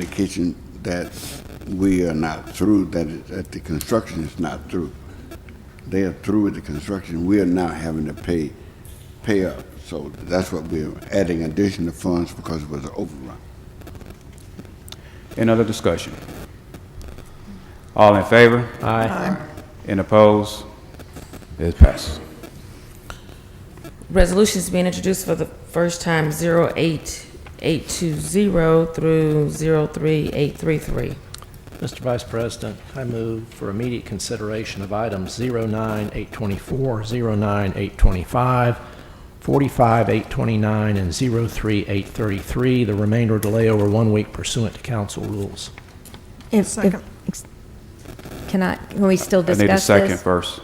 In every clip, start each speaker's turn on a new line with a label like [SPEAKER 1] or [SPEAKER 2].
[SPEAKER 1] indication that we are not through, that, it- that the construction is not through. They are through with the construction, we are now having to pay, pay up. So that's what we're adding additional funds because it was an overrun.
[SPEAKER 2] Any other discussion? All in favor? Aye. Any opposed? It passes.
[SPEAKER 3] Resolutions being introduced for the first time, 08820 through 03833.
[SPEAKER 4] Mr. Vice President, I move for immediate consideration of items 09824, 09825, 45829, and 03833. The remainder to lay over one week pursuant to council rules.
[SPEAKER 5] If- if-
[SPEAKER 6] Second.
[SPEAKER 5] ex- Can I, can we still
[SPEAKER 2] I
[SPEAKER 5] discuss
[SPEAKER 2] need a
[SPEAKER 5] this?
[SPEAKER 2] second first.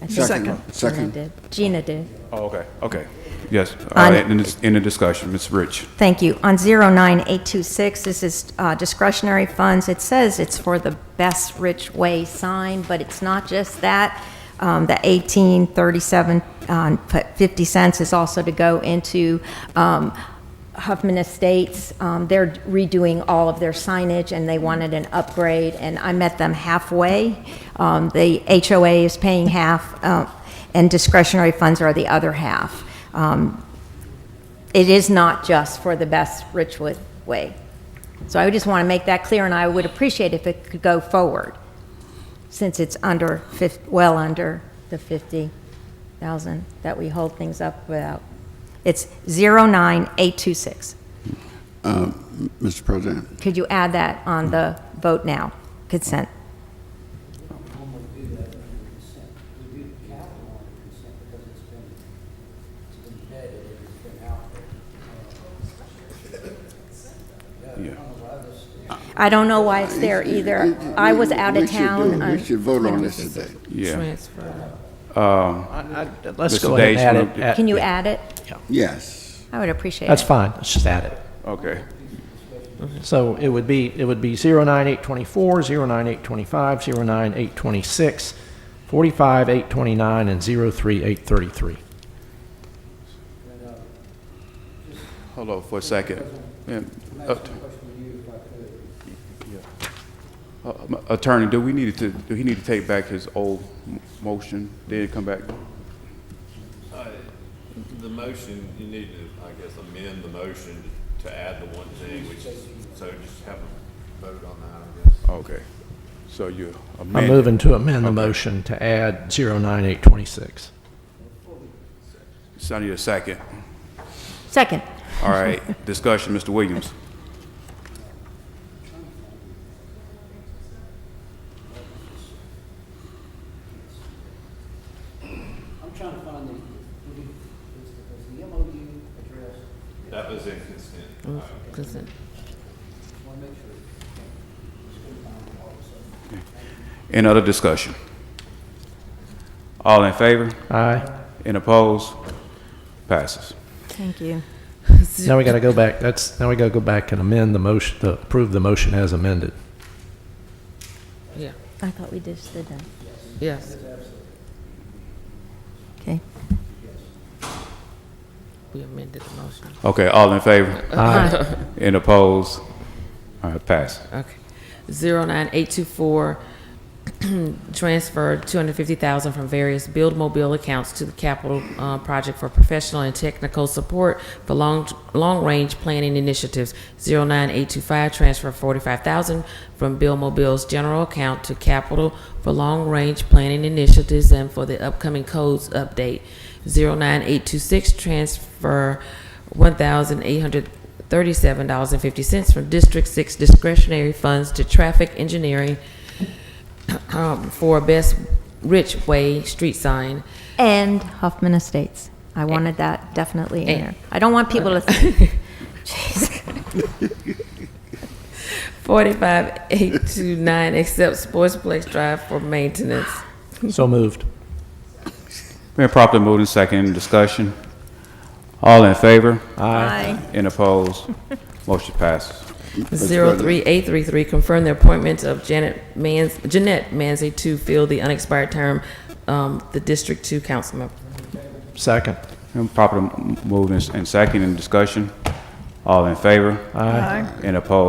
[SPEAKER 5] I think
[SPEAKER 1] Second.
[SPEAKER 5] Gina
[SPEAKER 1] Second.
[SPEAKER 5] did. Gina did.
[SPEAKER 2] Oh, okay, okay. Yes, Uh, all
[SPEAKER 5] On-
[SPEAKER 2] right, end of- end of discussion. Ms. Rich,
[SPEAKER 5] Thank you. On 09826, this is uh, discretionary funds. It says it's for the Best Rich Way sign, but it's not just that. Um, The 1837, um, put 50 cents is also to go into um, Huffman Estates. Um, They're redoing all of their signage, and they wanted an upgrade, and I met them halfway. Um, The HOA is paying half, uh, and discretionary funds are the other half. Um, it is not just for the best Richwood way. So I just want to make that clear, and I would appreciate if it could go forward, since it's under, fif- well under the 50,000 that we hold things up without. It's 09826.
[SPEAKER 1] Mr. Uh, President,
[SPEAKER 5] Could you add that on the vote now consent?
[SPEAKER 2] yeah.
[SPEAKER 5] I don't know why it's there either. I was out
[SPEAKER 1] We
[SPEAKER 5] of
[SPEAKER 1] should
[SPEAKER 5] town. um,
[SPEAKER 1] do-
[SPEAKER 5] on-
[SPEAKER 1] We should vote on this today.
[SPEAKER 2] Yeah.
[SPEAKER 3] Transfer.
[SPEAKER 2] Um,
[SPEAKER 4] I- I- Let's
[SPEAKER 2] Mr.
[SPEAKER 4] go ahead
[SPEAKER 2] Days
[SPEAKER 4] and
[SPEAKER 2] moved it.
[SPEAKER 4] add it.
[SPEAKER 5] Can you add it?
[SPEAKER 1] Yes,
[SPEAKER 5] I would appreciate
[SPEAKER 4] That's
[SPEAKER 5] it.
[SPEAKER 4] fine, let's just add it.
[SPEAKER 2] Okay,
[SPEAKER 4] So it would be, it would be 09824, 09825, 09826, 45829, and 03833.
[SPEAKER 2] hold on for a second. Yeah, att- Uh, m- Attorney, do we need to, do he need to take back his old m- motion, then come back?
[SPEAKER 7] Uh, The motion, you need to, I guess, amend the motion to add the one thing, which is, so just have a vote on that, I guess.
[SPEAKER 2] Okay, so you
[SPEAKER 4] I'm
[SPEAKER 2] amend.
[SPEAKER 4] moving to amend the motion to add 09826.
[SPEAKER 2] So I need a second.
[SPEAKER 5] Second.
[SPEAKER 2] All right, discussion, Mr. Williams.
[SPEAKER 8] I'm trying to find the, was the MOU address,
[SPEAKER 7] That was in consent.
[SPEAKER 3] Consent.
[SPEAKER 8] want to make sure.
[SPEAKER 2] Any other discussion? All in favor?
[SPEAKER 4] Aye.
[SPEAKER 2] Any opposed? Passes.
[SPEAKER 5] Thank you.
[SPEAKER 4] Now we got to go back, that's, now we got to go back and amend the motion, to approve the motion as amended.
[SPEAKER 3] Yeah,
[SPEAKER 5] I thought we just did that.
[SPEAKER 3] yes,
[SPEAKER 5] Okay.
[SPEAKER 3] we amended the motion.
[SPEAKER 2] Okay, all in favor? Any opposed? All right, passes.
[SPEAKER 3] Okay. 09824, transfer 250,000 from various build mobile accounts to the capital uh, project for professional and technical support for long, long-range planning initiatives. 09825, transfer 45,000 from build mobile's general account to capital for long-range planning initiatives and for the upcoming codes update. 09826, transfer 1,800 thirty-seven dollars and fifty cents from District Six discretionary funds to traffic engineering um, for Best Rich Way street sign.
[SPEAKER 5] And Huffman Estates. I wanted that definitely in
[SPEAKER 3] And-
[SPEAKER 5] there. I don't want people to think, jeez,
[SPEAKER 3] Forty-five eight two nine accepts Sportsplex Drive for maintenance.
[SPEAKER 4] So moved.
[SPEAKER 2] Been properly moved and second, Any discussion? All in favor?
[SPEAKER 5] Aye.
[SPEAKER 2] Any opposed? Motion passes.
[SPEAKER 3] Zero three eight three three confirm the appointment of Janet Mans, Jeanette Manzi to fill the unexpired term, um, the District Two council member.
[SPEAKER 4] Second.
[SPEAKER 2] Been properly moved and and second, Any discussion? All in favor? Aye. Any opposed?